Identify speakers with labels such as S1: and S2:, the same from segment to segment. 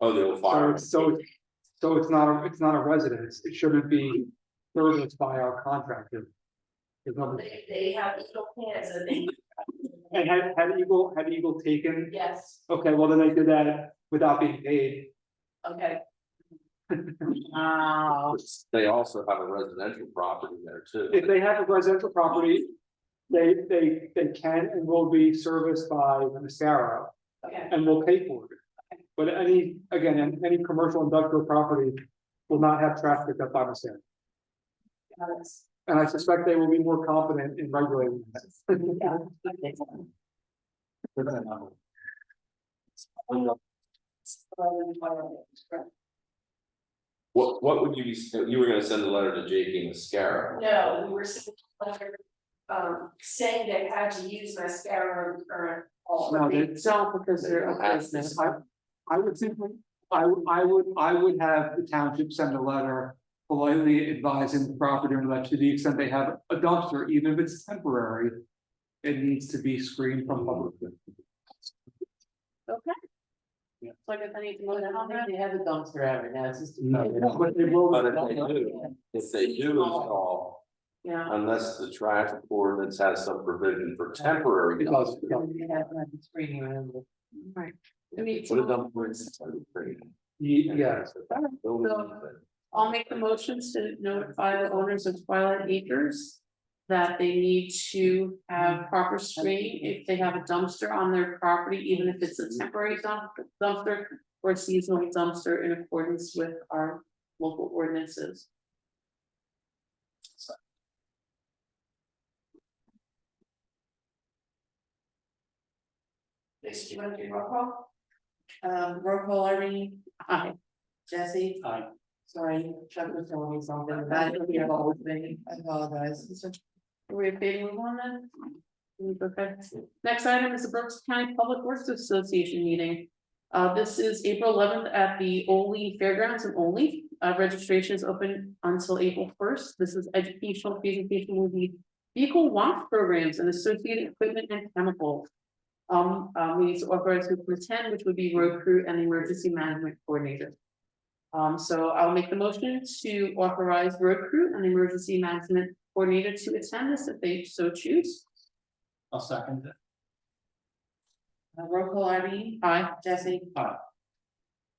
S1: Oh, the old
S2: So
S1: fire.
S2: it's, so, it's- so it's not, a it's not a residence, it shouldn't be serviced by our contractor. There's no-
S3: They, they have little cans and they,
S2: And had, had Eagle, had Eagle taken,
S3: yes,
S2: okay, well, then they did that without being paid.
S3: okay.
S2: Wow.
S1: They also have a residential property there
S2: If
S1: too.
S2: they have a residential property, they, they, they can and will be serviced by the Mascaro
S3: Okay,
S2: and will pay for it. But any, again, any, any commercial industrial property will not have traffic up by Mascaro.
S3: got it.
S2: And I suspect they will be more confident in regulating that.
S3: Yeah, okay. Um, well, correct.
S1: What, what would you be, you were gonna send a letter to J.P. Mascara?
S3: No, we were sent a letter, um, saying they had to use mascara on current. all
S2: No,
S3: of
S2: they-
S3: it.
S2: No, because
S1: they're a business.
S2: I, I would simply, I, would- I would, I would have the township send a letter. Politely advising the property owner that to the extent they have a dumpster, even if it's temporary. It needs to be screened from public.
S4: Okay.
S2: Yeah.
S4: So I guess I need to move
S5: I don't
S4: on
S5: think they have a dumpster ever now, it's just.
S2: No, But they will.
S1: But if they do, if they do install,
S4: Yeah.
S1: unless the trash ordinance has some provision for temporary.
S2: It does, yeah.
S5: They have like a screen around it.
S4: Right.
S1: What a dump ordinance.
S2: Ye- Yes,
S4: I'll make the motions to notify the owners of Twilight Acres. That they need to have proper screening if they have a dumpster on their property, even if it's a temporary dump- dumpster. Or seasonal dumpster in accordance with our local ordinances.
S3: Lisa, do you wanna do roll call?
S5: Um, roll call Irene,
S4: Aye.
S5: Jesse,
S2: I,
S5: sorry, Chuck was telling me something, I don't know what was me, I apologize.
S4: Are we okay to move on then? Mm, Okay, next item is the Brooks County Public Works Association meeting. Uh, this is April eleventh at the Ole Fairgrounds in Ole. Uh, registration is open until April first. This is educational presentation will be vehicle wash programs and associated equipment and chemicals. Um, uh, we need to authorize who can attend, which would be road crew and the emergency management coordinator. Um, so I'll make the motion to authorize road crew and the emergency management coordinator to attend this if they so choose.
S2: I'll second that.
S5: Uh, Roll call Irene,
S4: Aye.
S5: Jesse,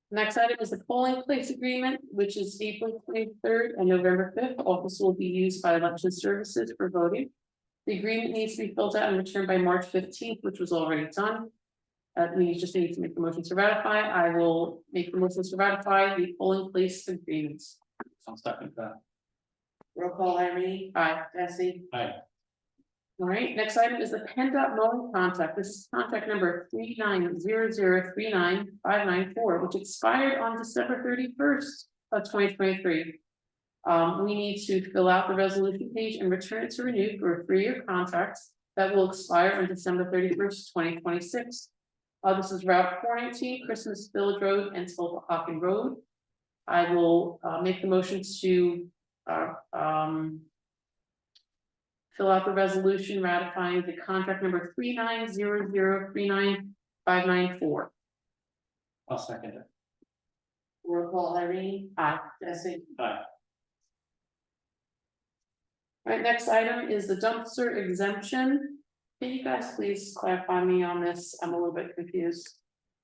S4: Next item is the polling place agreement, which is April twenty-third and November fifth. Office will be used by election services for voting. The agreement needs to be filled out and returned by March fifteenth, which was already done. Uh, we just need to make the motion to ratify. I will make the motion to ratify the polling place agreements.
S2: I'll second that.
S5: roll call Irene,
S4: Aye.
S5: Jesse,
S4: All right, next item is the PennDOT mowing contract. This is contract number three nine zero zero three nine five nine four, which expired on December thirty first of twenty twenty three. Um, we need to fill out the resolution page and return it to renew for a three-year contract that will expire on December thirty first, twenty twenty six. Uh, this is Route four nineteen, Christmas Village Road and Hopping Road. I will, uh, make the motion to, uh, um, Fill out the resolution ratifying the contract number three nine zero zero three nine five nine four.
S2: I'll second it.
S5: roll call Irene,
S4: Aye.
S5: Jesse,
S4: Alright, next item is the dumpster exemption. Can you guys please clarify me on this? I'm a little bit confused.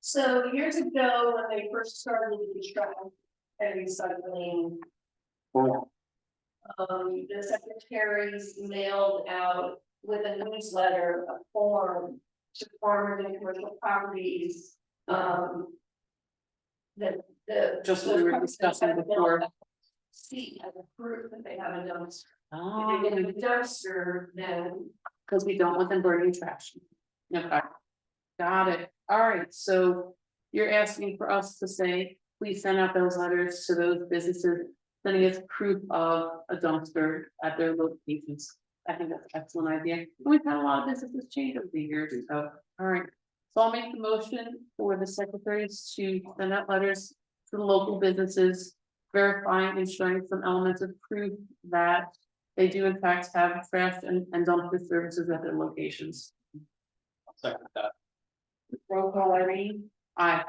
S3: So years ago, when they first started the trash and recycling, um, the secretaries mailed out with a newsletter, a form to farmers and commercial properties, um, the, the.
S4: Just what we were discussing before.
S3: See, as a proof that they have a dumpster. If they get
S4: Oh,
S3: a dumpster, then
S4: because we don't want them burning trash. Okay. Got it. Alright, so you're asking for us to say, please send out those letters to those businesses. Sending us proof of a dumpster at their locations. I think that's an excellent idea. And We've had a lot of businesses change over the years, so, alright. So I'll make the motion for the secretaries to send out letters to the local businesses. Verifying and showing some elements of proof that they do in fact have trash and, and dumpster services at their locations.
S2: Second that.
S5: roll call Irene.
S4: Aye.